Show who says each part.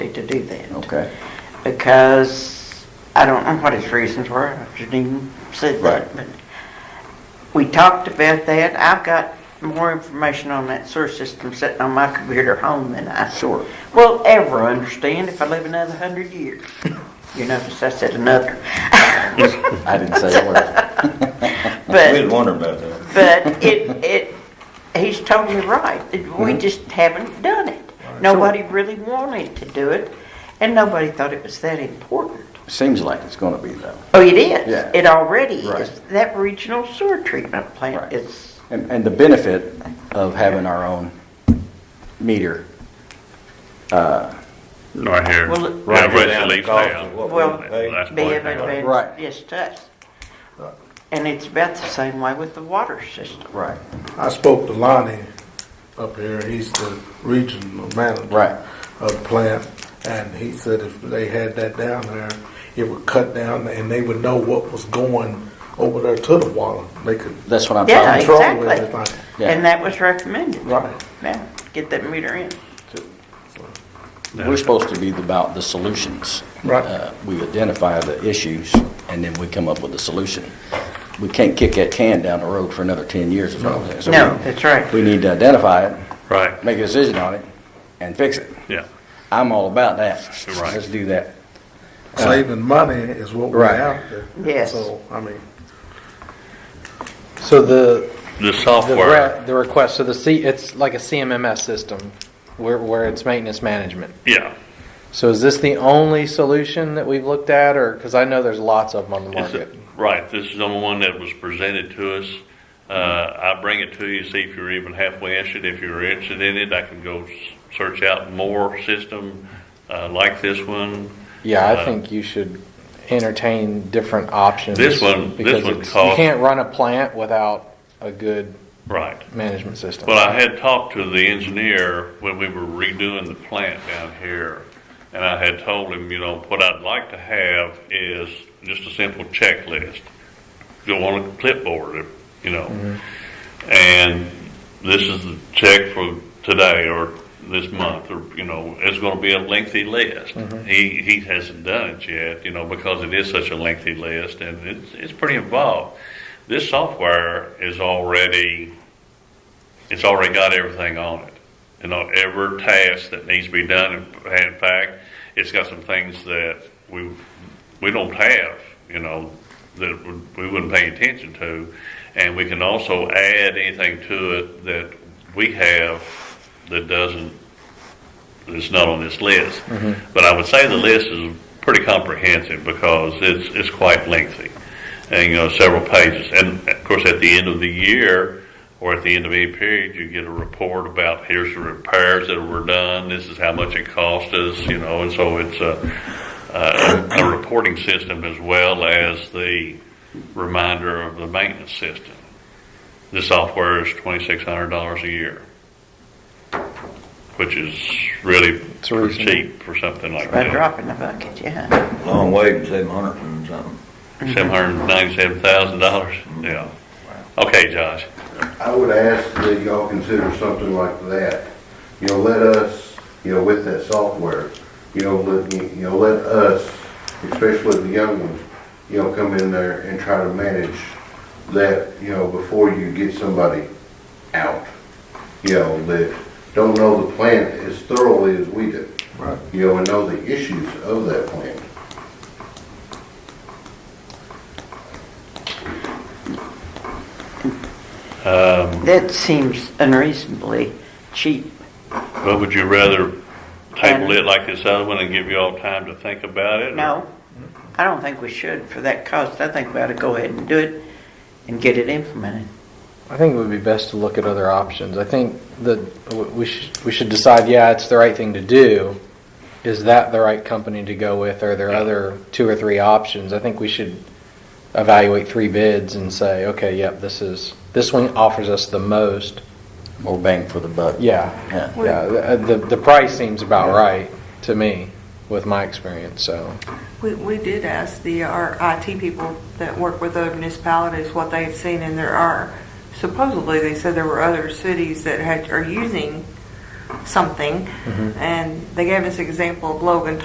Speaker 1: do that.
Speaker 2: Okay,
Speaker 1: Because I don't know what his reasons were, I shouldn't even said that,
Speaker 2: Right.
Speaker 1: but we talked about that. I've got more information on that sewer system sitting on my computer home than I
Speaker 2: sure.
Speaker 1: will ever understand if I live another hundred years. You notice I said another.
Speaker 2: I didn't say a word.
Speaker 3: We
Speaker 1: But
Speaker 3: was wondering about that.
Speaker 1: But it, it, he's totally right.
Speaker 2: Mm-hmm.
Speaker 1: We just haven't done it. Nobody really wanted to do it, and nobody thought it was that important.
Speaker 2: Seems like it's gonna be though.
Speaker 1: Oh, it is.
Speaker 2: Yeah.
Speaker 1: It already
Speaker 2: Right.
Speaker 1: is. That regional sewer treatment plant
Speaker 2: Right.
Speaker 1: is,
Speaker 2: And, and the benefit of having our own meter,
Speaker 4: Right here.
Speaker 1: Well, it-
Speaker 4: Right
Speaker 3: Right
Speaker 4: where
Speaker 3: down
Speaker 4: it
Speaker 3: the
Speaker 4: leaves
Speaker 3: cost
Speaker 4: down.
Speaker 3: of what we
Speaker 1: Well,
Speaker 3: pay.
Speaker 4: That's
Speaker 1: be
Speaker 4: what
Speaker 1: of
Speaker 4: they are.
Speaker 2: Right.
Speaker 1: advantage, yes, to us.
Speaker 3: Right.
Speaker 1: And it's about the same way with the water system.
Speaker 2: right,
Speaker 5: I spoke to Lonnie up here, he's the regional manager.
Speaker 2: Right.
Speaker 5: Of the plant, and he said if they had that down there, it would cut down and they would know what was going over there to the water. They could
Speaker 2: that's what I'm
Speaker 1: Yeah,
Speaker 2: talking
Speaker 5: control
Speaker 1: exactly.
Speaker 5: everything.
Speaker 2: Yeah.
Speaker 1: And that was recommended.
Speaker 5: Right.
Speaker 1: Yeah, get that meter in.
Speaker 2: about. We're supposed to be about the solutions.
Speaker 5: Right.
Speaker 2: Uh, We identify the issues and then we come up with a solution. We can't kick that can down the road for another ten years or something. So
Speaker 1: No,
Speaker 2: we-
Speaker 1: that's right.
Speaker 2: We need to identify it,
Speaker 4: Right,
Speaker 2: make a decision on it, and fix it.
Speaker 4: yeah.
Speaker 2: I'm all about that.
Speaker 4: Right.
Speaker 2: Let's do that.
Speaker 5: Saving money is what we're
Speaker 2: Right.
Speaker 5: after.
Speaker 1: Yes.
Speaker 5: So, I mean,
Speaker 6: So the,
Speaker 4: The
Speaker 6: the,
Speaker 4: software,
Speaker 6: re- the request, so the C, it's like a CMMS system where, where it's maintenance management.
Speaker 4: yeah.
Speaker 6: So is this the only solution that we've looked at or, because I know there's lots of them on the
Speaker 4: It's
Speaker 6: market.
Speaker 4: Right, this is the only one that was presented to us. Uh, I bring it to you, see if you're even halfway interested. If you're interested in it, I can go s- search out more system, uh, like this one.
Speaker 6: Yeah,
Speaker 4: Uh,
Speaker 6: I think you should entertain different options.
Speaker 4: This one- this
Speaker 6: because
Speaker 4: one
Speaker 6: it's- You
Speaker 4: costs-
Speaker 6: can't run a plant without a good
Speaker 4: Right.
Speaker 6: management system.
Speaker 4: Well, I had talked to the engineer when we were redoing the plant down here, and I had told him, you know, what I'd like to have is just a simple checklist. Go on a clipboard, you know, and this is the check for today or this month, or, you know, it's gonna be a lengthy list. He, he hasn't done it yet, you know, because it is such a lengthy list, and it's, it's pretty involved. This software is already it's already got everything on it. You know, every task that needs to be done, in in fact, it's got some things that we, we don't have, you know, that would- we wouldn't pay attention to. And we can also add anything to it that we have that doesn't, that's not on this list. But I would say the list is pretty comprehensive because it's, it's quite lengthy and you know several pages. And of course, at the end of the year or at the end of any period, you get a report about here's the repairs that were done. This is how much it cost us, you know. And so it's uh, a, a, a uh, reporting system as well as the reminder of the maintenance system. The software is twenty six hundred dollars a year. Which is really pretty
Speaker 6: reasonable.
Speaker 4: cheap for something like
Speaker 1: By
Speaker 4: that.
Speaker 1: dropping the bucket, yeah.
Speaker 3: Long way from seven hundred and something.
Speaker 4: Seven hundred ninety-seven thousand dollars, yeah. Okay, Josh,
Speaker 7: I would ask that y'all consider something like that. You know, let us, you know, with that software, you know, let, you know, let us, especially the young ones, you know, come in there and try to manage that, you know, before you get somebody out. You know, that don't know the plant as thoroughly as we do.
Speaker 5: Right.
Speaker 7: You know, and know the issues of that plant.
Speaker 4: Um,
Speaker 1: That seems unreasonably cheap.
Speaker 4: but would you rather table it like this other one and give you all time to think about it? or-
Speaker 1: No, I don't think we should for that cost. I think we ought to go ahead and do it and get it implemented.
Speaker 6: I think it would be best to look at other options. I think that w- we should, we should decide, yeah, it's the right thing to do. Is that the right company to go with? Are there other two or three options? I think we should evaluate three bids and say, okay, yep, this is, this one offers us the most.
Speaker 2: More bang for the buck.
Speaker 6: Yeah.
Speaker 2: Yeah.
Speaker 6: Yeah, the- uh, the, the price seems about right to me with my experience, so.
Speaker 8: We, we did ask the, our IT people that work with other municipalities what they had seen, and there are, supposedly, they said there were other cities that had, are using something, and they gave us an example of Logan